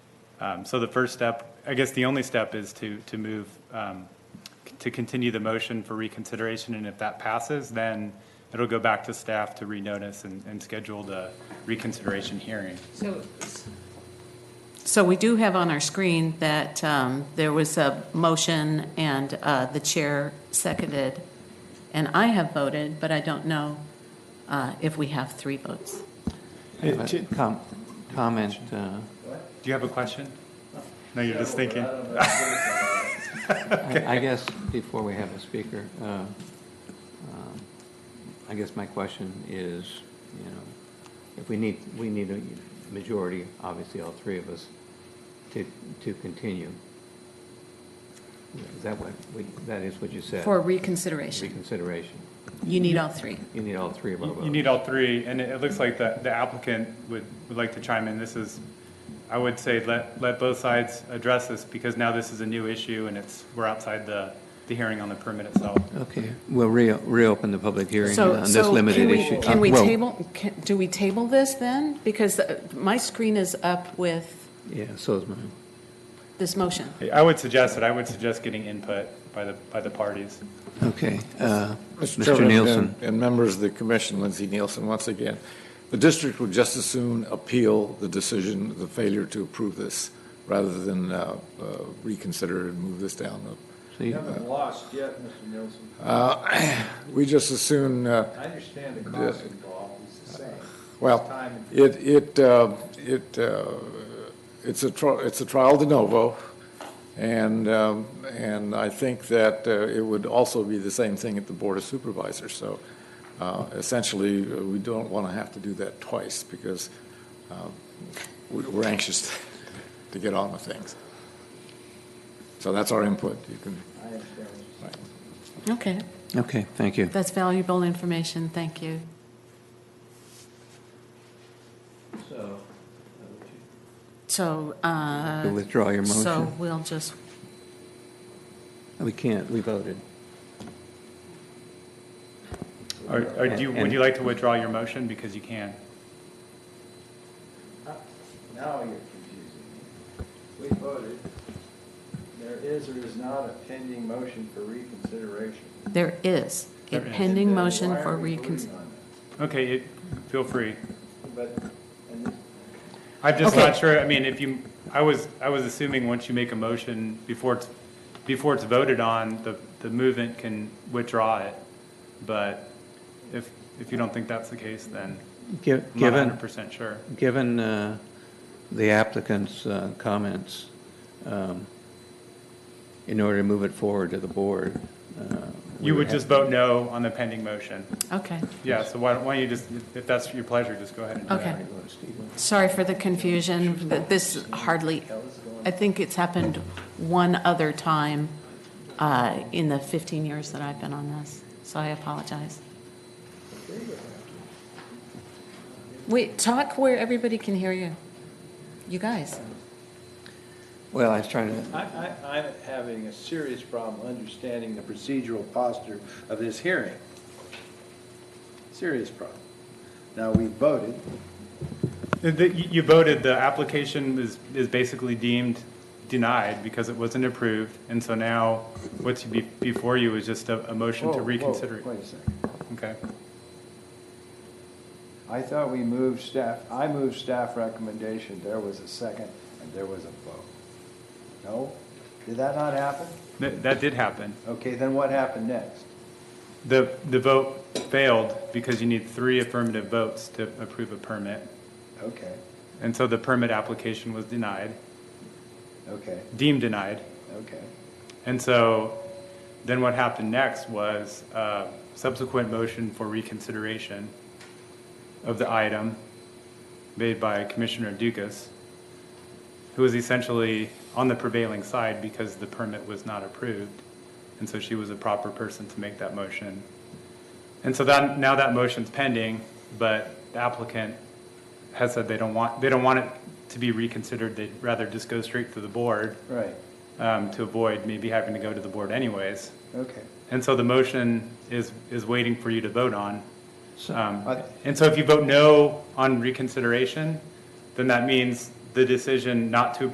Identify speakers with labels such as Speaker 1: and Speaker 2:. Speaker 1: Um, So the first step, I guess the only step is to, to move, um, c- to continue the motion for reconsideration, and if that passes, then it'll go back to staff to renotice and, and schedule the reconsideration hearing.
Speaker 2: So, so we do have on our screen that um, there was a motion and uh, the chair seconded, and I have voted, but I don't know uh, if we have three votes.
Speaker 3: I have a com- Comment, uh,
Speaker 1: Do you have a question? No, you're just thinking.
Speaker 3: I I guess, before we have a speaker, uh, um, I guess my question is, you know, if we need, we need a majority, obviously, all three of us, to, to continue. Is that what, we- that is what you said?
Speaker 2: For reconsideration,
Speaker 3: Reconsideration.
Speaker 2: you need all three.
Speaker 3: You need all three of our
Speaker 1: You
Speaker 3: votes.
Speaker 1: you need all three, and it it looks like the the applicant would, would like to chime in. This is, I would say, let, let both sides address this, because now this is a new issue, and it's, we're outside the, the hearing on the permit itself.
Speaker 3: Okay, we'll re- reopen the public hearing
Speaker 2: So-
Speaker 3: on this
Speaker 2: so can
Speaker 3: limited
Speaker 2: we-
Speaker 3: issue.
Speaker 2: Can
Speaker 3: Uh,
Speaker 2: we
Speaker 3: well,
Speaker 2: table, can- do we table this then? Because uh, my screen is up with
Speaker 3: Yeah, so is mine.
Speaker 2: this motion.
Speaker 1: I would suggest it, I would suggest getting input by the, by the parties.
Speaker 3: Okay, uh, Mr.
Speaker 4: Chairman
Speaker 3: Nielsen.
Speaker 4: and- And members of the commission, Lindsey Nielsen, once again, the district would just as soon appeal the decision, the failure to approve this, rather than uh, uh, reconsider and move this down.
Speaker 3: So you-
Speaker 5: You haven't lost yet, Mr. Nielsen.
Speaker 4: We just as soon, uh,
Speaker 5: I understand the cost involved, it's the same. It's
Speaker 4: Well,
Speaker 5: time and-
Speaker 4: it, it, uh, it, uh, it's a, tri- it's a trial de novo, and, um, and I think that uh, it would also be the same thing at the Board of Supervisors. So uh, essentially, uh, we don't want to have to do that twice, because uh, we- we're anxious to get on with things. So that's our input. You can,
Speaker 5: I understand what you're saying.
Speaker 4: right.
Speaker 2: Okay,
Speaker 3: Okay, thank you.
Speaker 2: that's valuable information, thank you. So, uh,
Speaker 3: You'll withdraw your
Speaker 2: So
Speaker 3: motion?
Speaker 2: we'll just,
Speaker 3: We can't, we voted.
Speaker 1: Or, or do you, would you like to withdraw your motion, because you can?
Speaker 5: Uh, Now you're confusing me. We voted, there is or is not a pending motion for reconsideration.
Speaker 2: there is a
Speaker 1: There is.
Speaker 2: pending
Speaker 5: Then
Speaker 2: motion
Speaker 5: why are
Speaker 2: for
Speaker 5: we voting
Speaker 2: reconsideration.
Speaker 5: on
Speaker 1: Okay, it- feel free.
Speaker 5: that? But, and
Speaker 1: I'm just not sure, I mean, if you, I was, I was assuming once you make a motion, before it's, before it's voted on, the, the movement can withdraw it. But if, if you don't think that's the case, then
Speaker 3: Gi-
Speaker 1: I'm not
Speaker 3: Given,
Speaker 1: hundred percent sure.
Speaker 3: given uh, the applicant's uh, comments, um, in order to move it forward to the board. uh, we
Speaker 1: You would
Speaker 3: have-
Speaker 1: just vote no on the pending motion.
Speaker 2: Okay,
Speaker 1: Yeah, so why don't, why don't you just, if that's your pleasure, just go ahead and do that.
Speaker 2: okay. Sorry for the confusion, but this hardly, I think it's happened one other time uh, in the 15 years that I've been on this, so I apologize. Wait, talk where everybody can hear you. You guys.
Speaker 3: Well, I was trying to,
Speaker 5: I, I, I'm having a serious problem understanding the procedural posture of this hearing. Serious problem. Now, we voted,
Speaker 1: The- the- You you voted, the application is, is basically deemed denied because it wasn't approved. And so now what's be- before you is just a, a motion
Speaker 5: Whoa,
Speaker 1: to
Speaker 5: whoa,
Speaker 1: reconsider. it.
Speaker 5: Wait a second.
Speaker 1: Okay.
Speaker 5: I thought we moved staff, I moved staff recommendation, there was a second, and there was a vote. No? Did that not happen?
Speaker 1: That, that did happen.
Speaker 5: Okay, then what happened next?
Speaker 1: The, the vote failed because you need three affirmative votes to approve a permit.
Speaker 5: Okay,
Speaker 1: And so the permit application was denied,
Speaker 5: okay,
Speaker 1: deemed denied.
Speaker 5: okay.
Speaker 1: And so then what happened next was uh, subsequent motion for reconsideration of the item made by Commissioner Dukas, who was essentially on the prevailing side because the permit was not approved. And so she was a proper person to make that motion. And so that, now that motion's pending, but the applicant has said they don't want, they don't want it to be reconsidered. They'd rather just go straight to the board
Speaker 5: Right,
Speaker 1: um, to avoid maybe having to go to the board anyways.
Speaker 5: okay.
Speaker 1: And so the motion is, is waiting for you to vote on. Um,
Speaker 5: I-
Speaker 1: And so if you vote no on reconsideration, then that means the decision not to